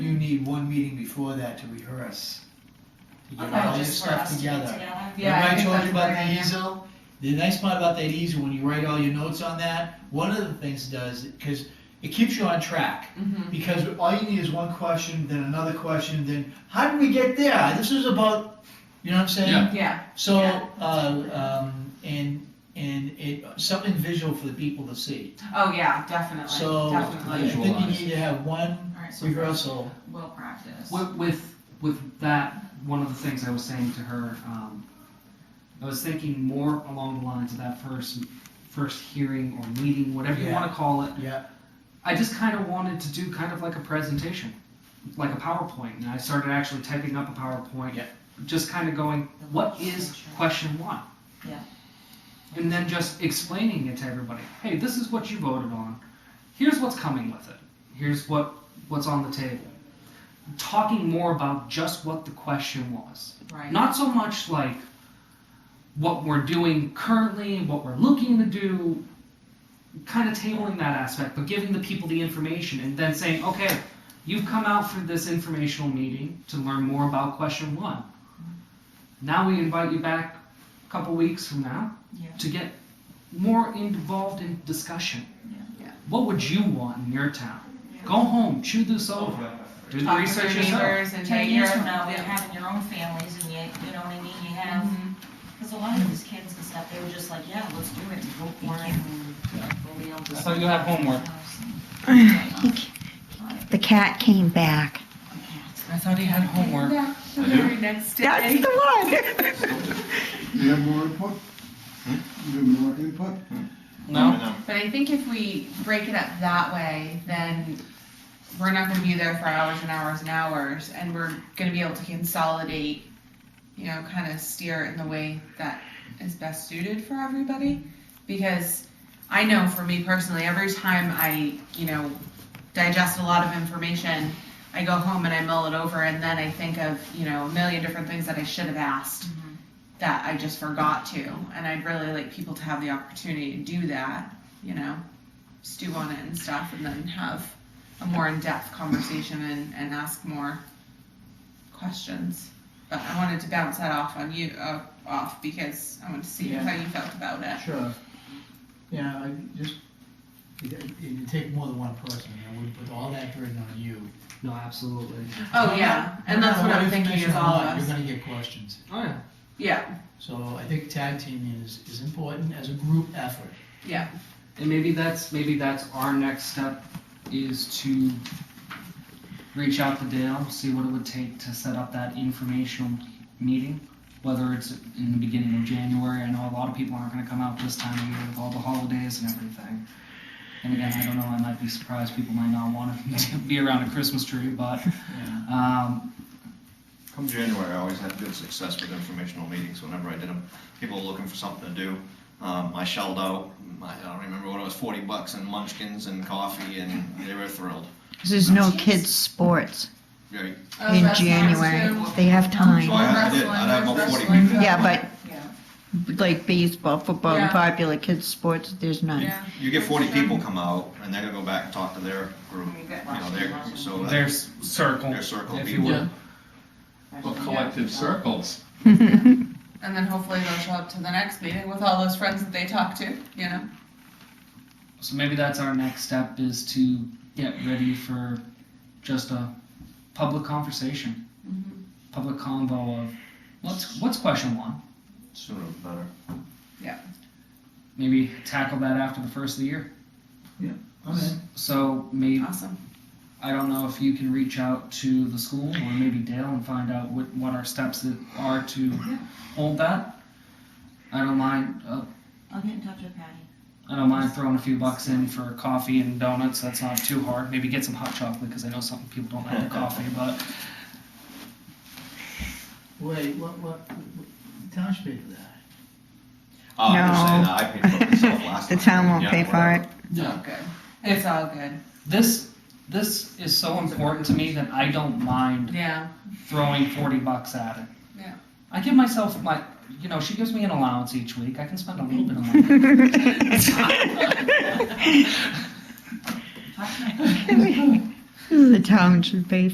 need one meeting before that to rehearse. To get Okay, all your just for stuff us to get together. together. Yeah, I Remember I think told you that's a about great the idea. easel? The nice part about that easel, when you write all your notes on that, one of the things it does, because it keeps you on track. Mhm. Because all you need is one question, then another question, then how did we get there? This is about, you know what I'm saying? Yeah. Yeah, So, Yeah. uh, um, and, and it, something visual for the people to see. oh yeah, definitely, So, I definitely. Visual. think you Visualize. need to have one Alright, so first, rehearsal. we'll practice. With, with with that, one of the things I was saying to her, um, I was thinking more along the lines of that first first hearing or meeting, whatever you Yeah. want to call it. Yeah. I just kind of wanted to do kind of like a presentation, like a PowerPoint, and I started actually typing up a PowerPoint. Yeah. Just kind of going, what is question one? Yeah. And then just explaining it to everybody. Hey, this is what you voted on. Here's what's coming with it. Here's what what's on the table. Talking more about just what the question was. Right. Not so much like what we're doing currently, what we're looking to do, kind of tabling that aspect, but giving the people the information and then saying, okay, you've come out for this informational meeting to learn more about question one. Now we invite you back a couple weeks from now Yeah. to get more involved in discussion. Yeah. Yeah. What would you want in your town? Go home, chew this over, do the Talk with research your yourself. neighbors and Ten make years your- from now, Mm-hmm. you're yeah. having your own families and you, you know what I mean, you have, Mhm. because a lot of these kids and stuff, they were just like, yeah, let's do it, vote for it, and we'll be able to. So you have homework. The cat came back. I thought he had homework. The very next That's day. the one. You have more input? You have more input? No? But I think if we break it up that way, then we're not gonna be there for hours and hours and hours, and we're gonna be able to consolidate, you know, kind of steer it in the way that is best suited for everybody. Because I know for me personally, every time I, you know, digest a lot of information, I go home and I mull it over, and then I think of, you know, a million different things that I should have asked that I just forgot to. And I'd really like people to have the opportunity to do that, you know, stew on it and stuff, and then have a more in depth conversation and, and ask more questions. But I wanted to bounce that off on you, uh, off because I wanted to see Yeah. how you felt about it. Sure. Yeah, I just, it, it- it'd take more than one person, I would put all that burden on you. No, absolutely. Oh, yeah. And No that's matter what I'm thinking information is or all of not, us. You're gonna get questions. Oh yeah. Yeah, So I think tag teaming is, is important as a group effort. yeah. And maybe that's maybe that's our next step is to reach out to Dale, see what it would take to set up that informational meeting. Whether it's in the beginning of January, I know a lot of people aren't going to come out this time of year with all the holidays and everything. And again, I don't know, I might be surprised. People might not want to be around a Christmas tree, but um, Come January, I always had good success with informational meetings whenever I did them. People were looking for something to do. Um, I shelled out, I I don't remember what it was, 40 bucks in munchkins and coffee, and they were thrilled. There's no kids' sports Very. Oh, in January. They have So time. I I did, I'd have about 40 people. Yeah, but like baseball, football, and Yeah. popular kids' sports, there's none. Yeah. You get 40 people come out, and they're going to go back and talk to their group, you know, their, so that- There's circle. their circle of If you people. would. Well, collective circles. And then hopefully they'll show up to the next meeting with all those friends that they talk to, you know? so maybe that's our next step is to get ready for just a public conversation. Mhm. public convo of what's what's question one. Sooner the better. Maybe tackle that after the first of the year. Okay. So maybe Awesome. I don't know if you can reach out to the school or maybe Dale and find out what what our steps that are to hold that. I don't mind. Uh, I'll get in touch with Patty. I don't mind throwing a few bucks in for coffee and donuts. That's not too hard. Maybe get some hot chocolate because I know some people don't like the coffee. But Wait, what, what, what- town should pay for that? Oh, I'm just saying that, I paid for it myself last The time. town won't Yeah, pay for whatever. it. All good. It's all good. this this is so important to me that I don't mind Yeah. throwing 40 bucks at it. Yeah. I give myself my, you know, she gives me an allowance each week. I can spend a little bit of money. Talk to my The town should pay